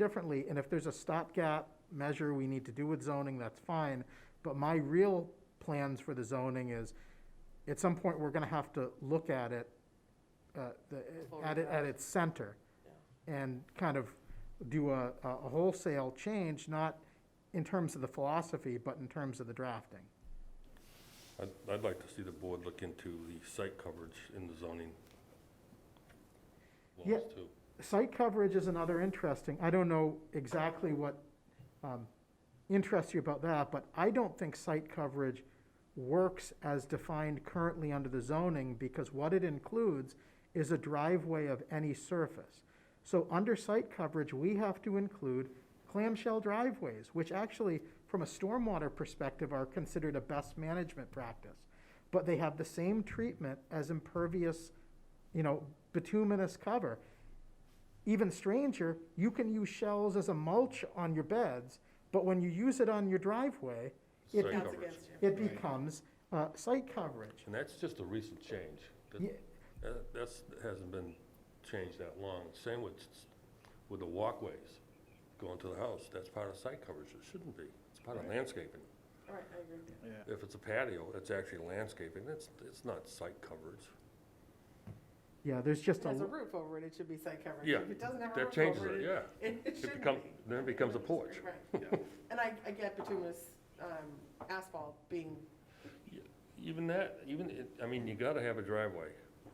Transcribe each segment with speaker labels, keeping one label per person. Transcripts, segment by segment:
Speaker 1: differently, and if there's a stopgap measure we need to do with zoning, that's fine. But my real plans for the zoning is, at some point, we're gonna have to look at it, uh, the,
Speaker 2: Full
Speaker 1: at it, at its center. And kind of do a, a a wholesale change, not in terms of the philosophy, but in terms of the drafting.
Speaker 3: I'd, I'd like to see the board look into the site coverage in the zoning
Speaker 1: Yeah.
Speaker 3: laws too.
Speaker 1: Site coverage is another interesting, I don't know exactly what um, interests you about that, but I don't think site coverage works as defined currently under the zoning, because what it includes is a driveway of any surface. So under site coverage, we have to include clamshell driveways, which actually, from a stormwater perspective, are considered a best management practice. But they have the same treatment as impervious, you know, bituminous cover. Even stranger, you can use shells as a mulch on your beds, but when you use it on your driveway, it,
Speaker 3: Site
Speaker 1: be-
Speaker 2: Counts
Speaker 3: coverage.
Speaker 2: against you.
Speaker 1: it becomes uh, site coverage.
Speaker 3: And that's just a recent change. That-
Speaker 1: Yeah.
Speaker 3: that- That's, that hasn't been changed that long. Same with, s- with the walkways going to the house, that's part of site coverage, it shouldn't be. It's part of landscaping.
Speaker 2: All right, I agree.
Speaker 4: Yeah,
Speaker 3: If it's a patio, it's actually landscaping, it's, it's not site coverage.
Speaker 1: Yeah, there's
Speaker 2: If
Speaker 1: just
Speaker 2: it
Speaker 1: a,
Speaker 2: has a
Speaker 1: l-
Speaker 2: roof over it, it should be site coverage.
Speaker 3: Yeah,
Speaker 2: If it doesn't have a
Speaker 3: that
Speaker 2: roof
Speaker 3: changes
Speaker 2: over
Speaker 3: it,
Speaker 2: it,
Speaker 3: yeah.
Speaker 2: It it
Speaker 3: It
Speaker 2: shouldn't
Speaker 3: becomes,
Speaker 2: be.
Speaker 3: then it becomes a porch.
Speaker 2: Right. And I, I get bituminous um, asphalt being,
Speaker 3: Even that, even, it- I mean, you gotta have a driveway,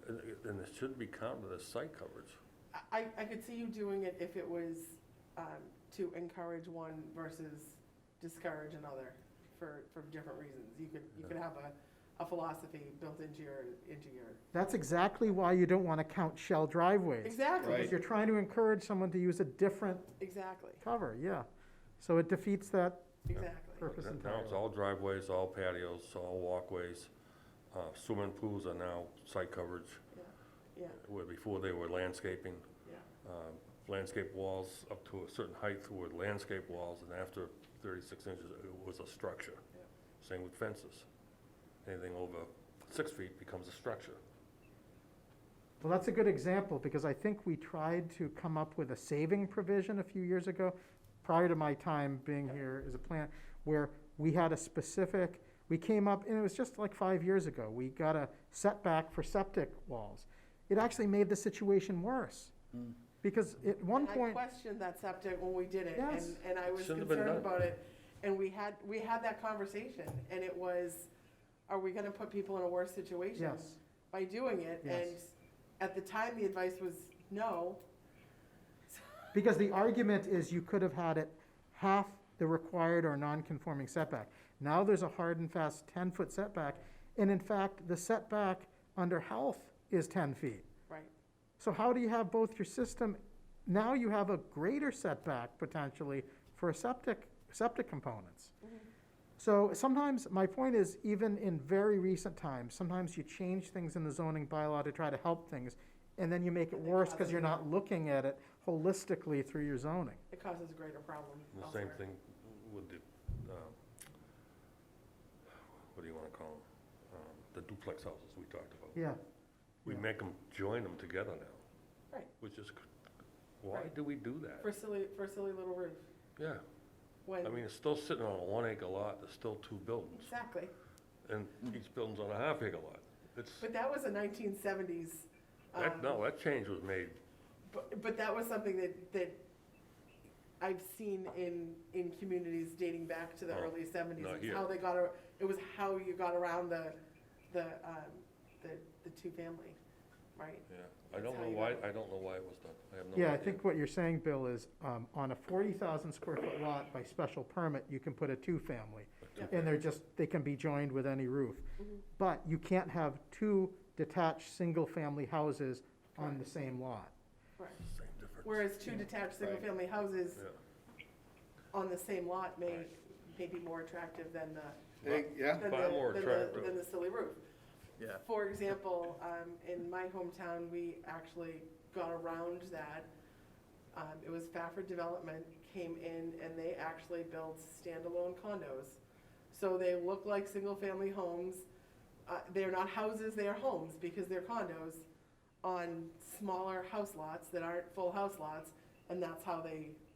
Speaker 3: and it- and it should be counted as site coverage.
Speaker 2: I- I, I could see you doing it if it was um, to encourage one versus discourage another for, for different reasons. You could, you could have a, a philosophy built into your, into your,
Speaker 1: that's exactly why you don't want to count shell driveways.
Speaker 2: exactly,
Speaker 4: Right.
Speaker 1: Because you're trying to encourage someone to use a different
Speaker 2: exactly,
Speaker 1: cover, yeah. So it defeats that
Speaker 2: exactly.
Speaker 1: purpose
Speaker 3: Now- Now it's
Speaker 1: entirely.
Speaker 3: all driveways, all patios, all walkways. Uh, Swimming pools are now site coverage,
Speaker 2: Yeah,
Speaker 3: where before they were landscaping.
Speaker 2: yeah.
Speaker 3: Um, Landscape walls up to a certain height were landscape walls, and after 36 inches, it was a structure.
Speaker 2: Yep.
Speaker 3: Same with fences. Anything over six feet becomes a structure.
Speaker 1: Well, that's a good example, because I think we tried to come up with a saving provision a few years ago, prior to my time being here as a plant, where we had a specific, we came up, and it was just like five years ago, we got a setback for septic walls. It actually made the situation worse, because at one
Speaker 2: And I
Speaker 1: point,
Speaker 2: questioned that septic when we did it,
Speaker 1: Yes.
Speaker 2: and, and I was
Speaker 3: Shouldn't have been
Speaker 2: concerned
Speaker 3: done.
Speaker 2: about it. And we had, we had that conversation, and it was, are we gonna put people in a worse situation
Speaker 1: yes,
Speaker 2: by doing it?
Speaker 1: Yes.
Speaker 2: And at the time, the advice was no,
Speaker 1: because the argument is you could have had it half the required or non-conforming setback. Now there's a hard and fast ten-foot setback, and in fact, the setback under health is ten feet.
Speaker 2: right?
Speaker 1: So how do you have both your system, now you have a greater setback potentially for a septic, septic components. So sometimes, my point is, even in very recent times, sometimes you change things in the zoning bylaw to try to help things, and then you make it
Speaker 2: And they
Speaker 1: worse
Speaker 2: cause
Speaker 1: because you're
Speaker 2: it.
Speaker 1: not looking at it holistically through your zoning.
Speaker 2: It causes a greater problem
Speaker 3: And The
Speaker 2: elsewhere.
Speaker 3: same thing with the, um, what do you wanna call them? The duplex houses we talked about.
Speaker 1: Yeah,
Speaker 3: We
Speaker 1: Yeah.
Speaker 3: make them join them together now.
Speaker 2: Right.
Speaker 3: Which is, c- why
Speaker 2: Right.
Speaker 3: do we do that?
Speaker 2: For silly, for silly little roof,
Speaker 3: Yeah,
Speaker 2: when,
Speaker 3: I mean, it's still sitting on a one acre lot, there's still two buildings,
Speaker 2: exactly.
Speaker 3: and each building's on a half acre lot. It's,
Speaker 2: Mm. But that was a nineteen seventies. um,
Speaker 3: that, no, that change was made,
Speaker 2: But, but that was something that, that I've seen in, in communities dating back to the
Speaker 3: Oh,
Speaker 2: early seventies.
Speaker 3: not
Speaker 2: It's
Speaker 3: here.
Speaker 2: How they got, ar- it was how you got around the, the, um, the, the two-family, right?
Speaker 3: I
Speaker 2: That's
Speaker 3: don't
Speaker 2: how
Speaker 3: know
Speaker 2: you
Speaker 3: why,
Speaker 2: got
Speaker 3: I don't know why it was done, I have no idea.
Speaker 1: yeah, I think what you're saying, Bill, is um, on a 40,000 square foot lot by special permit, you can put a two-family. And they're just, they can be joined with any roof. But you can't have two detached, single-family houses on the same lot.
Speaker 2: Correct.
Speaker 3: Same difference.
Speaker 2: Whereas two detached, single-family houses
Speaker 3: Yeah.
Speaker 2: on the same lot may, may be more attractive than the,
Speaker 4: Hey, yeah,
Speaker 2: than
Speaker 3: Far more
Speaker 2: the, than the,
Speaker 3: attractive.
Speaker 2: than the silly roof.
Speaker 4: yeah.
Speaker 2: For example, um, in my hometown, we actually got around that. Um, it was Fafford Development came in and they actually built standalone condos. So they look like single-family homes. Uh, they're not houses, they are homes because they're condos on smaller house lots that aren't full house lots. And that's how they